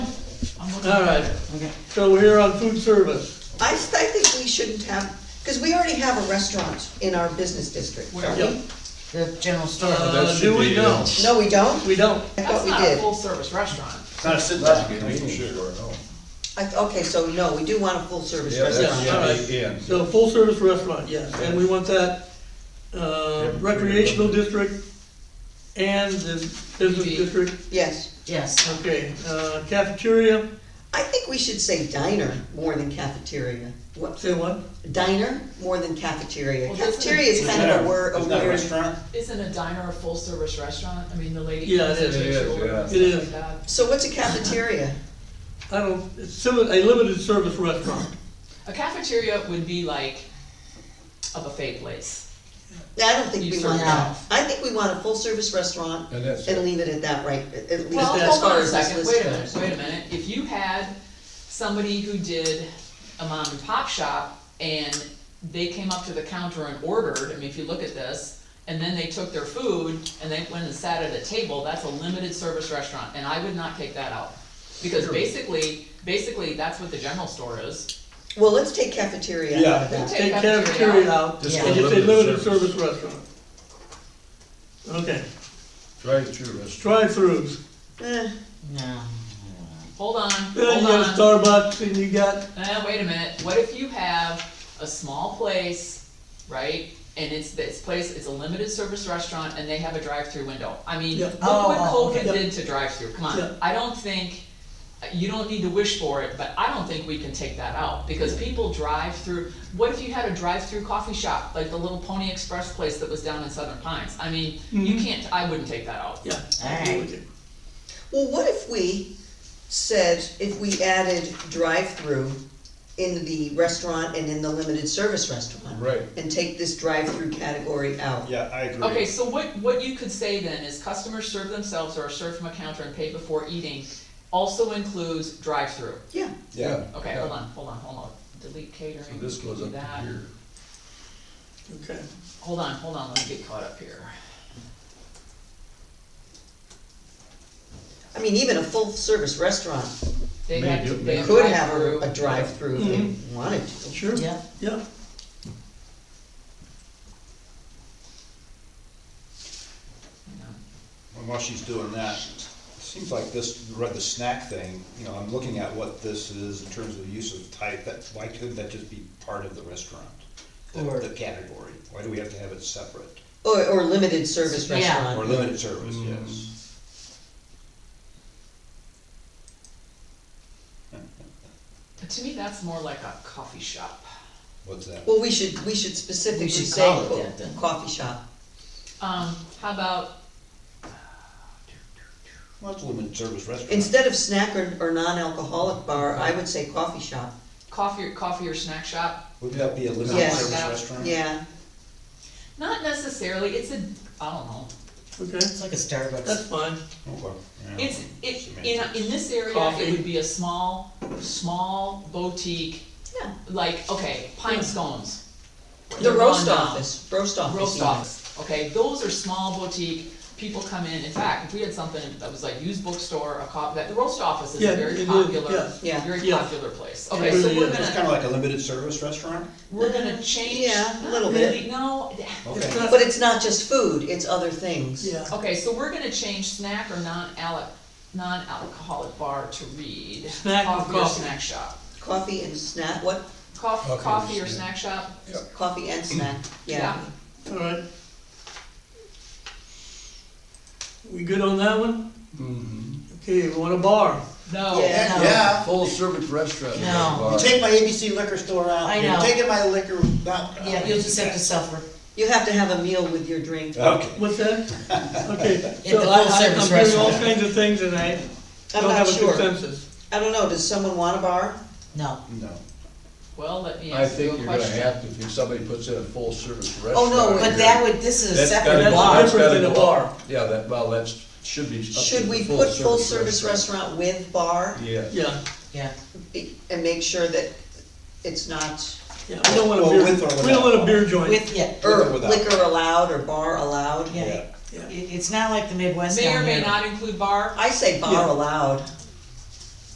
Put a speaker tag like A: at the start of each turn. A: All right,
B: Okay.
A: so we're here on food service.
C: I, s- I think we shouldn't have, because we already have a restaurant in our business district, don't
A: Yeah.
C: we?
B: The general store.
D: Uh, that
A: Uh, do
D: should
A: we
D: be,
A: know?
D: uh,
C: No, we don't?
A: We don't.
C: I thought
E: That's
C: we
E: not a
C: did.
E: full-service restaurant.
D: It's not a
C: Oh,
D: sit
F: That's
D: down.
F: a convenience store, no.
C: I th- Okay, so no, we do want a full-service
F: Yeah,
C: restaurant.
F: that's-
A: Yeah, all right.
D: yeah.
A: So full service restaurant, yes, and we want that, uh, recreational district and the business
E: B.
A: district.
C: Yes.
B: Yes,
A: Okay, uh, cafeteria,
C: I think we should say diner more than cafeteria. What,
A: say what?
C: diner more than cafeteria?
E: Well, that's-
C: Cafeteria is kind of a word, a
D: It's not a
C: weird.
D: restaurant?
E: Isn't a diner a full-service restaurant? I mean, the lady
A: Yeah, it
E: comes and
A: is.
E: takes
F: It
E: your
F: is,
E: order and
A: yeah. It
E: stuff
A: is.
E: like that.
C: So what's a cafeteria?
A: I don't, it's simi- a limited service restaurant.
E: A cafeteria would be like a buffet place.
C: Yeah, I don't think
E: You
C: we
E: serve
C: want that.
E: out.
C: I think we want a full-service restaurant
F: And that's,
C: and leave it at that, right? At at least
E: Well,
C: as
E: hold
C: far
E: on a
C: as this
E: second,
C: list
E: wait a
C: goes.
E: minute, wait a minute. If you had somebody who did a mom and pop shop and they came up to the counter and ordered, I mean, if you look at this, and then they took their food and they went and sat at a table, that's a limited service restaurant, and I would not take that out. Because basically, basically, that's what the general store is.
C: Well, let's take cafeteria out
D: Yeah.
C: of that.
A: Take cafeteria out,
F: Just
A: and
F: go
A: just say limited
F: limited
A: service restaurant. Okay,
F: drive-through restaurant.
A: drive-throughs.
C: Eh.
B: no.
E: Hold on,
A: Then you
E: hold
A: got
E: on.
A: Starbucks and you got,
E: Uh, wait a minute, what if you have a small place, right? And it's, this place, it's a limited service restaurant and they have a drive-through window. I mean,
A: Yeah.
E: look
B: Oh,
E: what
B: oh, okay.
E: COVID did to drive-through, come
A: Yeah.
E: on. I don't think, you don't need to wish for it, but I don't think we can take that out. Because people drive through, what if you had a drive-through coffee shop, like the little Pony Express place that was down in Southern Pines? I mean, you
A: Mhm.
E: can't, I wouldn't take that out.
A: yeah.
B: Alright.
C: Well, what if we said, if we added drive-through in the restaurant and in the limited service restaurant?
F: Right.
C: And take this drive-through category out?
D: Yeah, I agree.
E: Okay, so what, what you could say then is customers serve themselves or are served from a counter and pay before eating also includes drive-through.
C: Yeah,
D: Yeah.
E: Okay, hold on, hold on, hold on, delete catering.
F: So this goes
E: do
F: up
E: that.
F: to here.
A: Okay,
E: Hold on, hold on, let me get caught up here.
C: I mean, even a full-service restaurant
E: They
F: May
E: have,
F: do-
E: to- they have
C: could have a,
E: drive-through.
C: a drive-through if
B: Mm-hmm.
C: they wanted to.
A: sure,
B: Yeah.
A: yeah.
E: Yeah.
D: And while she's doing that, it seems like this, read the snack thing, you know, I'm looking at what this is in terms of the use of type, that, why couldn't that just be part of the restaurant? The,
B: Or-
D: the category, why do we have to have it separate?
C: Or, or limited service
B: Yeah.
D: Or
C: restaurant.
D: limited service, yes.
E: To me, that's more like a coffee shop.
D: What's that?
C: Well, we should, we should specifically
B: should
C: say
B: call it
C: co-
B: that then.
C: coffee shop.
E: Um, how about,
D: Well, it's a limited service restaurant.
C: Instead of snack or, or non-alcoholic bar, I would say coffee shop.
E: coffee, coffee or snack shop?
D: Would that be a limited
C: Yes.
D: service
E: Yeah.
D: restaurant?
C: Yeah,
E: Not necessarily, it's a, I don't know.
A: Okay,
B: It's like a Starbucks.
A: that's fine.
D: Okay, yeah.
E: It's, it, in, in this area,
A: Coffee.
E: it would be a small, small boutique,
C: yeah.
E: like, okay, pine scones.
C: The
E: They're
C: roast
E: gone now.
C: office, roast office.
E: Roast
C: even.
E: office, okay, those are small boutique, people come in, in fact, if we had something that was like used bookstore, a cop, that, the roast office is
A: Yeah,
E: a very
A: it is,
E: popular,
A: yes.
C: Yeah.
E: very
A: Yeah.
E: popular place.
A: It
E: Okay, so
A: really
E: we're
A: is.
D: It's
E: gonna,
D: kinda like a limited service restaurant?
E: we're gonna change.
C: Yeah, a
E: not
C: little bit.
E: really, No,
A: It's
D: Okay,
A: not-
C: But it's not just food, it's other things.
A: Yeah,
E: okay, so we're gonna change snack or non-alcoholic, non-alcoholic bar to read.
A: Snack or
E: or
A: coffee?
E: snack shop.
C: Coffee and snack, what,
E: Coffee,
F: Okay,
E: coffee or
F: yeah.
E: snack shop?
C: coffee and snack, yeah.
A: all right. We good on that one? Okay, we want a bar.
E: No.
C: Yeah.
B: No.
D: Yeah.
F: Full-service restaurant.
B: No.
F: bar.
D: You take my ABC liquor store out,
B: I
D: you're
B: know.
D: taking my liquor, not. uh,
B: Yeah, you'll just have to suffer.
C: You have to have a meal with your drink. I'm
D: Okay.
A: What's that? Okay,
B: It's a
A: so I, I- I'm
B: full-service
A: hearing all
B: restaurant.
A: kinds of things and I don't
C: not
A: have a
C: sure.
A: consensus.
C: I don't know, does someone want a bar?
B: No.
D: No.
E: Well, let me
F: I
E: ask you
F: think
E: a
F: you're gonna
E: question.
F: have to, if somebody puts in a full-service restaurant.
C: Oh, no,
B: But that would, this is a
F: that's gotta
B: separate
F: go-
B: bar.
F: that's
A: Different
F: gotta
A: than a
F: go up.
A: bar.
F: Yeah, that, well, that's, should be up to
C: Should
F: the
C: we put full-service
F: full-service
C: restaurant with bar
F: Yeah.
A: Yeah,
B: Yeah.
C: be- and make sure that it's not,
A: yeah, we don't want a
D: Well,
A: beer,
D: with or
A: we don't
D: without?
A: want a beer joint.
B: With, yeah,
C: or
D: or without?
C: liquor allowed or bar allowed?
B: yeah.
D: Yeah.
B: It, it's not like the Midwest
E: May or
B: down
E: may
B: here.
E: not include bar,
C: I say
A: Yeah.
C: bar allowed.